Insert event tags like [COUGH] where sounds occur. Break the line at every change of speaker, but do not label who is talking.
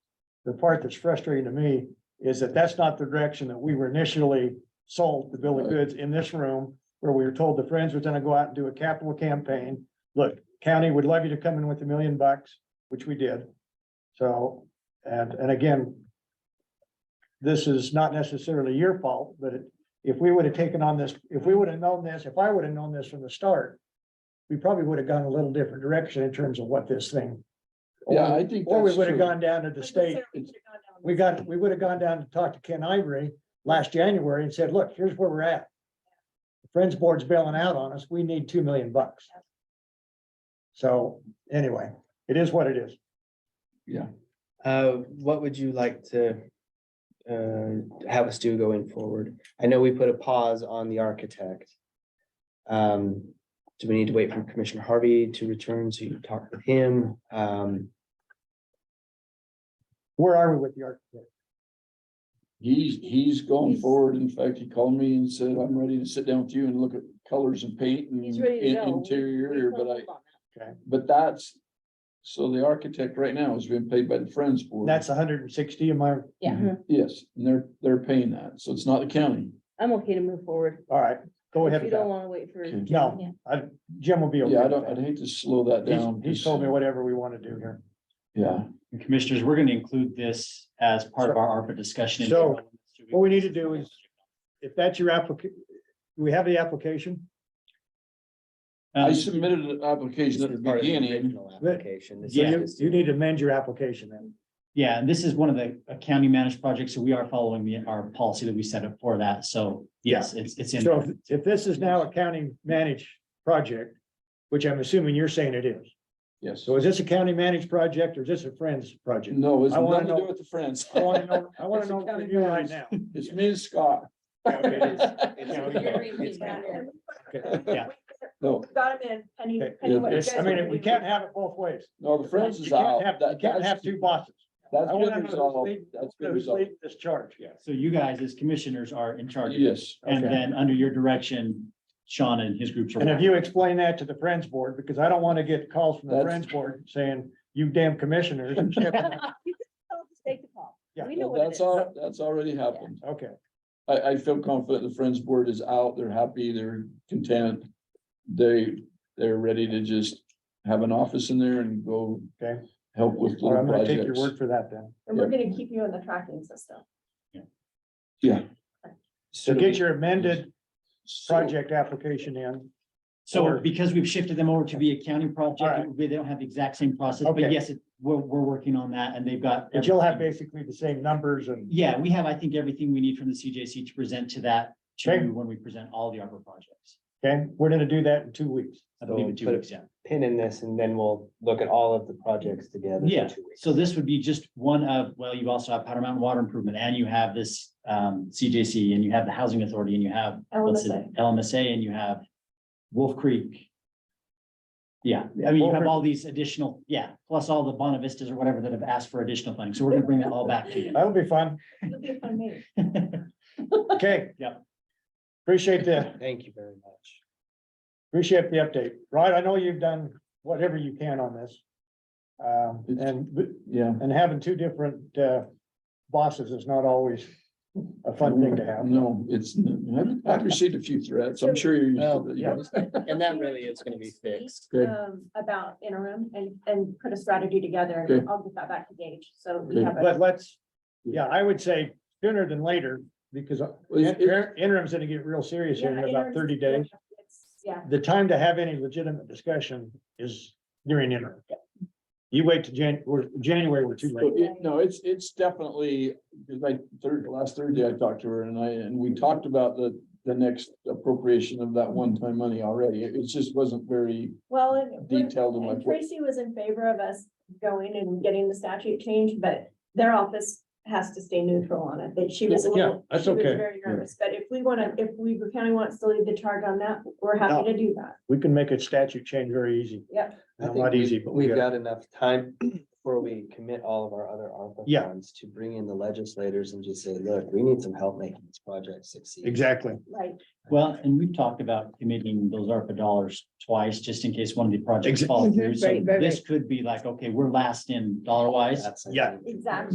the part that's frustrating to me is that that's not the direction that we were initially sold the bill of goods in this room, where we were told the Friends was gonna go out and do a capital campaign. Look, county would love you to come in with a million bucks, which we did. So, and, and again, this is not necessarily your fault, but it- if we would have taken on this, if we would have known this, if I would have known this from the start, we probably would have gone a little different direction in terms of what this thing.
Yeah, I think.
Or we
that's
would have
true.
gone down to the state
It's-
we got, we would have gone down to talk to Ken Ivory last January and said, look, here's where we're at. The Friends Board's bailing out on us. We need two million bucks. So anyway, it is what it is.
Uh, what would you like to uh, have us do going forward? I know we put a pause on the architect. Um, do we need to wait for Commissioner Harvey to return so you can talk with him? Um,
Where are we with the architect?
He's, he's going
He's-
forward. In fact, he called me and said, I'm ready to sit down with you and look at colors and paint and
He's ready to
in-
go.
interior, but I,
Okay,
but that's. So the architect right now is being paid by the Friends Board.
that's hundred and sixty of my,
Yeah,
Yes, and they're, they're paying that. So it's not the county.
I'm okay to move forward.
all right, go ahead
You
with
don't
that.
wanna wait for.
Okay.
Yeah.
No, I, Jim will be okay.
Yeah, I
with
don't, I'd
that.
hate to slow that down.
He's, he's told me whatever we want to do here.
Yeah,
And Commissioners, we're gonna include this as part of our ARPA discussion. Um,
So, what we need to do is- If that's your application, we have the application.
I
Um,
submitted an
this
application
is
at the
part of the
beginning.
original application. This is
So you,
just-
you need to amend your application then.
Yeah, and this is one of the uh, county managed projects, so we are following the, our policy that we set up for that, so yes, it's, it's in.
So if, if this is now a county managed project, which I'm assuming you're saying it is.
Yes.
So is this a county managed project or is this a Friends project?
[LAUGHS] No, it's
I wanna
nothing to
know-
do with the Friends. [LAUGHS]
I want to know, I want to
It's a
know from
county
you right now.
managed. [LAUGHS] It's me and Scott.
Yeah.
[LAUGHS] No,
Got him in, penny,
Okay.
penny. what you
It's-
guys
I mean,
are
we
doing.
can't have it both ways.
no, the Friends
You
is
can't
out.
have, you
That-
can't
that's-
have two bosses.
That's
I wanna know
been
who's
resolved.
leading-
That's been
Who's
resolved.
leading this charge? Yeah.
So you guys as commissioners are in charge, of it.
Yes.
and
Okay.
then under your direction, Sean and his groups
And
are.
if you explain that to the Friends Board, because I don't want to get calls from the
That's-
Friends Board saying, you damn
[LAUGHS]
commissioners. and shit."
Take the call.
Yeah.
We know what it
That's
is.
all, that's already happened.
Okay,
I, I feel confident the Friends Board is out, they're happy, they're content. They, they're ready to just have an office in there and go.
Okay.
Help with
Well,
little
I'm gonna take your
projects.
word for that then.
And we're gonna keep you in the tracking system.
So get your amended
So-
project application in.
So
or-
because we've shifted them over to be a county
All
project,
right.
it would be- they don't have the exact same process,
Okay.
but yes, it- we're, we're working on that, and they've got.
But you'll have
everything.
basically the same numbers and,
Yeah, we have, I think, everything we need from the CJC to present to that, to
Okay.
you when we present all the ARPA projects.
okay, we're gonna do that in two weeks.
I believe in
So
two
put it-
weeks, yeah.
Pin in this and then we'll look at all of the projects together. for
Yeah,
two weeks.
so this would be just one of, well, you also have Powder Mountain Water Improvement and you have this um CJC and you have the Housing Authority and you have. what's it,
LMSA.
LMSA and you have Wolf Creek. Yeah, I mean, you have all these additional, yeah, plus all the Bonavistas or whatever that have asked for additional funding. So we're gonna bring that all back to you.
That'll be fun.
It'll be a fun meeting.
[LAUGHS]
Okay.
Yeah.
Appreciate the,
Thank you very much.
appreciate the update. Right, I know you've done whatever you can on this. Um, and,
Yeah.
and having two different, uh, bosses is not always a fun thing to have.
No, it's, I've- I've received a few threats, I'm sure you're. used to
Well,
that,
yeah,
yeah.
and that really is gonna be fixed.
Good.
Um, About interim and, and put a strategy together
Good.
and I'll get that back to Gage. So we
Good.
have
But
a,
let's, yeah, I would say sooner than later, because
Well, it's- it's-
interim's gonna get real serious here in
Yeah,
about
interim's-
thirty days.
yeah,
the time to have any legitimate discussion is during interim. You wait to Jan, we're, January, we're too late.
So it- No, it's, it's definitely, because I, third, last Thursday I talked to her and I, and we talked about the, the next appropriation of that one-time money already. It it just wasn't very
well, and. we're-
detailed in my.
And Tracy was in favor of us going and getting the statute changed, but their office has to stay neutral on it. That she was a
Yeah,
little.
that's
she was
okay.
Very nervous, but if we wanna, if Weaver County wants to lead the charge on that, we're
No.
happy to do that.
We can make a statute change very easy.
Yep.
I
Not
think
not
we-
easy, but we
We've
got,
got enough time [CLEARS THROAT] before we commit all of our other ARPA
Yeah.
funds to bring in the legislators and just say, look, we need some help making this project succeed.
exactly.
Like,
Well, and we've talked about committing those ARPA dollars twice, just in case one of the projects
Exact-
falls through.
Mhm,
So
right, right,
this could be like, okay, we're last in dollar wise.
That's, I
Yeah.
think,
Exactly.